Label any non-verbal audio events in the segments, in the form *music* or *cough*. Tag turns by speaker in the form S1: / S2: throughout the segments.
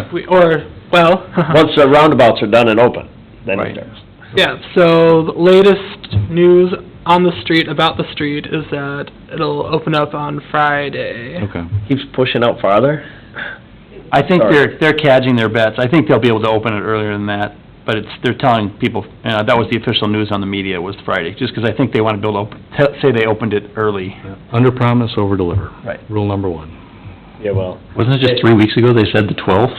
S1: If we- Or, well, *laughs*
S2: Once the roundabouts are done and open, then
S1: Right.
S2: it starts.
S1: yeah, so the latest news on the street, about the street, is that it'll open up on Friday.
S3: Okay.
S2: Keeps pushing out farther?
S4: I think
S2: Sorry.
S4: they're, they're catching their bets. I think they'll be able to open it earlier than that, but it's, they're telling people, uh, that was the official news on the media, was Friday, just because I think they want to build up, te- say they opened it early.
S3: Under promise, over deliver.
S4: Right.
S3: Rule number one.
S2: Yeah, well,
S5: Wasn't it just three weeks ago they said the twelfth?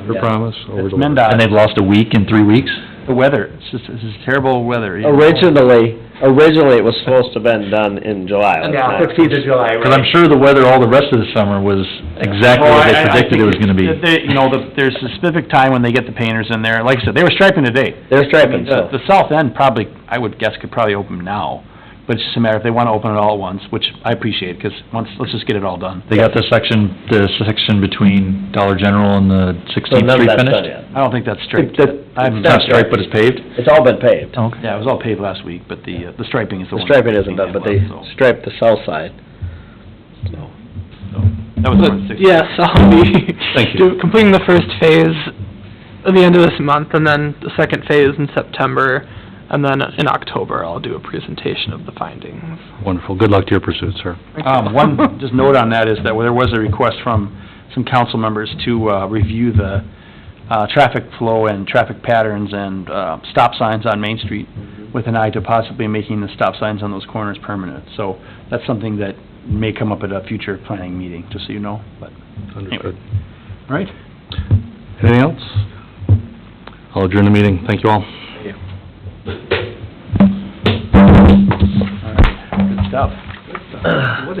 S3: Under
S2: Yeah.
S3: promise, over
S4: It's
S3: deliver.
S5: And they've
S4: MnDOT,
S5: lost a week in three weeks?
S4: the weather, it's just, it's just terrible weather.
S5: Oh,
S4: you know.
S2: originally, originally it was supposed to been done in July. last
S6: Yeah,
S2: time.
S6: fifteenth of July, right?
S5: Because I'm sure the weather all the rest of the summer was exactly
S4: Well,
S5: what
S4: I- I-
S5: they
S4: I
S5: predicted it was
S4: think
S5: gonna be.
S4: that they- You know, the- there's a specific time when they get the painters in there. Like I said, they were striping today.
S2: They're
S4: I mean,
S2: striping,
S4: the,
S2: so.
S4: the south end probably, I would guess, could probably open now, but it's just a matter if they want to open it all at once, which I appreciate, because once, let's just get it all done.
S5: They got the section, the section between Dollar General and the
S2: So
S5: Sixteenth
S2: none of
S5: Street
S2: that's done
S5: finished?
S2: yet.
S4: I don't think that's straight.
S2: The-
S4: I'm-
S5: It's not striped, but it's paved?
S2: It's all been paved.
S5: Oh, Okay.
S4: Yeah, it was all paved last week, but the, uh, the striping is the
S2: The
S4: one.
S2: striping isn't done, but they
S4: So,
S2: striped the south side.
S4: That was the one, six.
S1: Yes, *laughs* I'll be
S5: Thank you.
S1: do- completing the first phase at the end of this month, and then the second phase in September, and then in October, I'll do a presentation of the findings.
S3: Wonderful. Good luck to your pursuit, sir.
S2: *laughs*
S4: Um, one, just note on that is that there was a request from some council members to, uh, review the, uh, traffic flow and traffic patterns and, uh, stop signs on Main Street with an eye to possibly making the stop signs on those corners permanent. So that's something that may come up at a future planning meeting, just so you know, but,
S3: Understood.
S4: all right?
S3: Anything else? I'll adjourn the meeting. Thank you all.
S4: All right, good stuff.